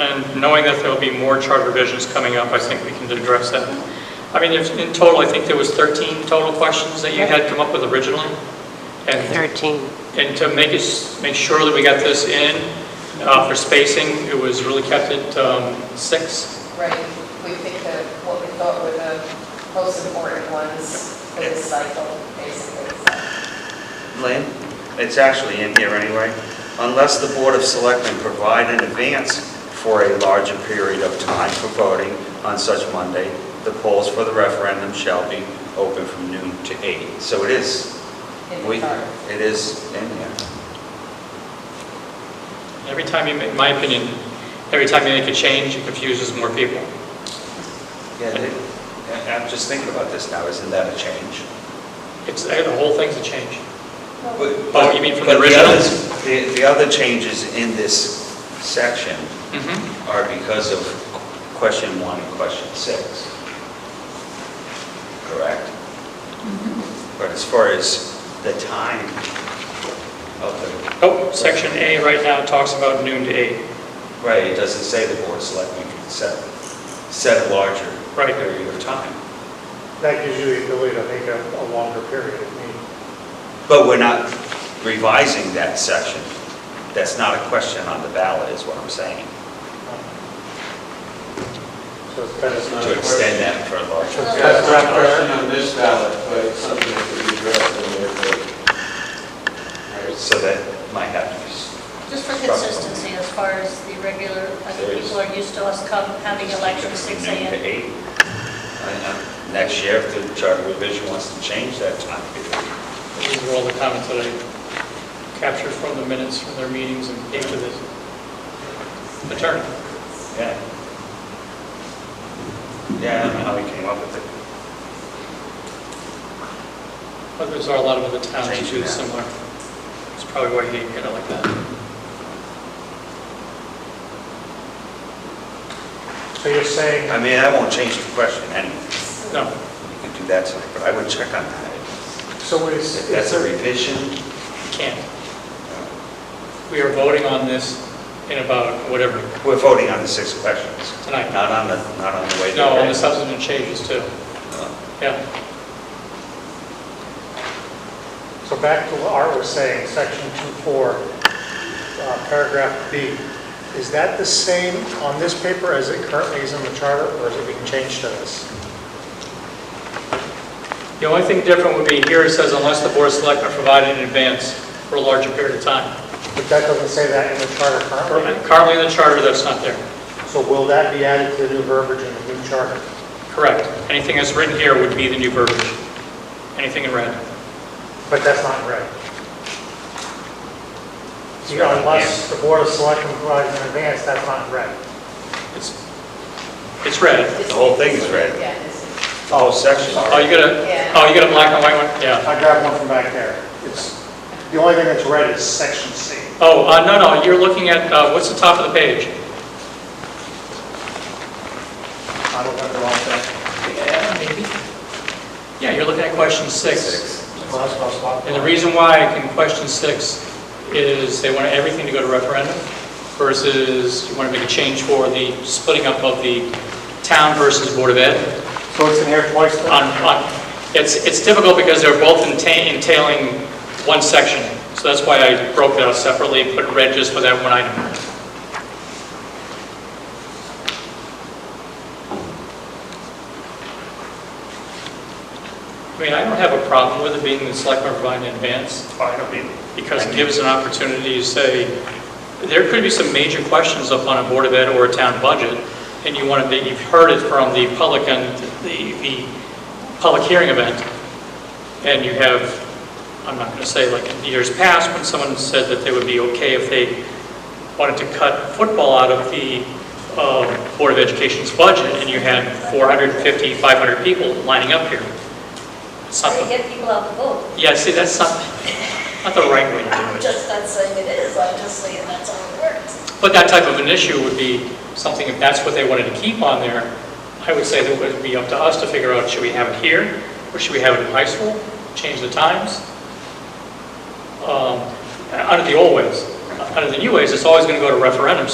And knowing that there'll be more charter revisions coming up, I think we can address that. I mean, there's- in total, I think there was 13 total questions that you had come up with originally. And 13. and to make us, make sure that we got this in uh, for spacing, it was really kept at um, six. Right, we picked the, what we thought were the most important ones for this cycle, basically. Lynn, it's actually in here anyway. Unless the Board of Selectmen provide in advance for a larger period of time for voting on such Monday, the polls for the referendum shall be open from noon to eight. So it is, in the we, chart. it is in here. Every time you, make, in my opinion, every time you make a change, it confuses more people. Yeah, they- I- I'm just thinking about this now, isn't that a change? It's, the whole thing's a change. But- Oh, you mean from the but original? others- The, the other changes in this section are because of question one and question six. Correct? But as far as the time of the, Oh, section A right now talks about noon to eight. right, it doesn't say the board of selectmen can set, set a larger Right. period of time. That gives you the ability to make a, a longer period of meeting. But we're not revising that section. That's not a question on the ballot, is what I'm saying, So it's better That's not to a extend question. that for a larger That's not a question on this ballot, but it's something that we address in there. but- So that might have to be, Just for consistency, as far as the regular, I think people are used to us come having elections six noon to AM. eight. I know. Next year, if the charter revision wants to change that time period. These were all the comments that I captured from the minutes from their meetings and gave to the attorney. Yeah. Yeah, I don't know how we came up with it. But there's a lot of other towns that Change do that. similar. It's probably why he hit it like that. So you're saying, I mean, I won't change the question anyway. No. You can do that tonight, but I would check on that. so is, If is that's a there, revision, Can't. We are voting on this in about whatever, we're voting on the six questions. tonight. Not on the, not on the way. No, they're on the written. substantive changes too. Yeah, so back to what Art was saying, section 2.4, uh, paragraph B, is that the same on this paper as it currently is in the charter, or is it being changed to this? the only thing different would be here it says unless the board of selectmen provide in advance for a larger period of time. But that doesn't say that in the charter currently, Currently in the charter, that's not there. so will that be added to the new verbiage in the new charter? Correct. Anything that's written here would be the new verbiage. Anything in red. But that's not right. It's right on Unless the board of selectmen provides in advance, that's not right. It's, it's red. It's- whole thing is red. Yeah, it's- Oh, section. Oh, you got a, oh, you got a black and white one? Yeah. I grabbed one from back there. It's, the only thing that's red is section C. Oh, uh, no, no, you're looking at, uh, what's the top of the page? I don't have the wrong thing. Yeah, maybe. Yeah, you're looking at question six. Well, that's what I was talking And the about. reason why I can question six is they want everything to go to referendum versus you want to make a change for the splitting up of the town versus Board of Ed. So it's in here twice then? On, on, it's, it's difficult because they're both enta- entailing one section. So that's why I broke it out separately, put red just for that one item. I mean, I don't have a problem with it being the selectmen provide in advance I don't either. because it gives an opportunity to say, there could be some major questions up on a Board of Ed or a town budget, and you want to, be- you've heard it from the public and the, the public hearing event, and you have, I'm not going to say like in years past, when someone said that they would be okay if they wanted to cut football out of the uh, Board of Education's budget, and you had 450, 500 people lining up here. To Something, get people out to vote. yeah, see, that's not, not the right way to do it. I'm just not saying it is, I'm just saying that's how it works. But that type of an issue would be something, if that's what they wanted to keep on there, I would say that it would be up to us to figure out, should we have it here, or should we have it in high school? Change the times? Um, Out of the old ways. Out of the new ways, it's always going to go to referendum,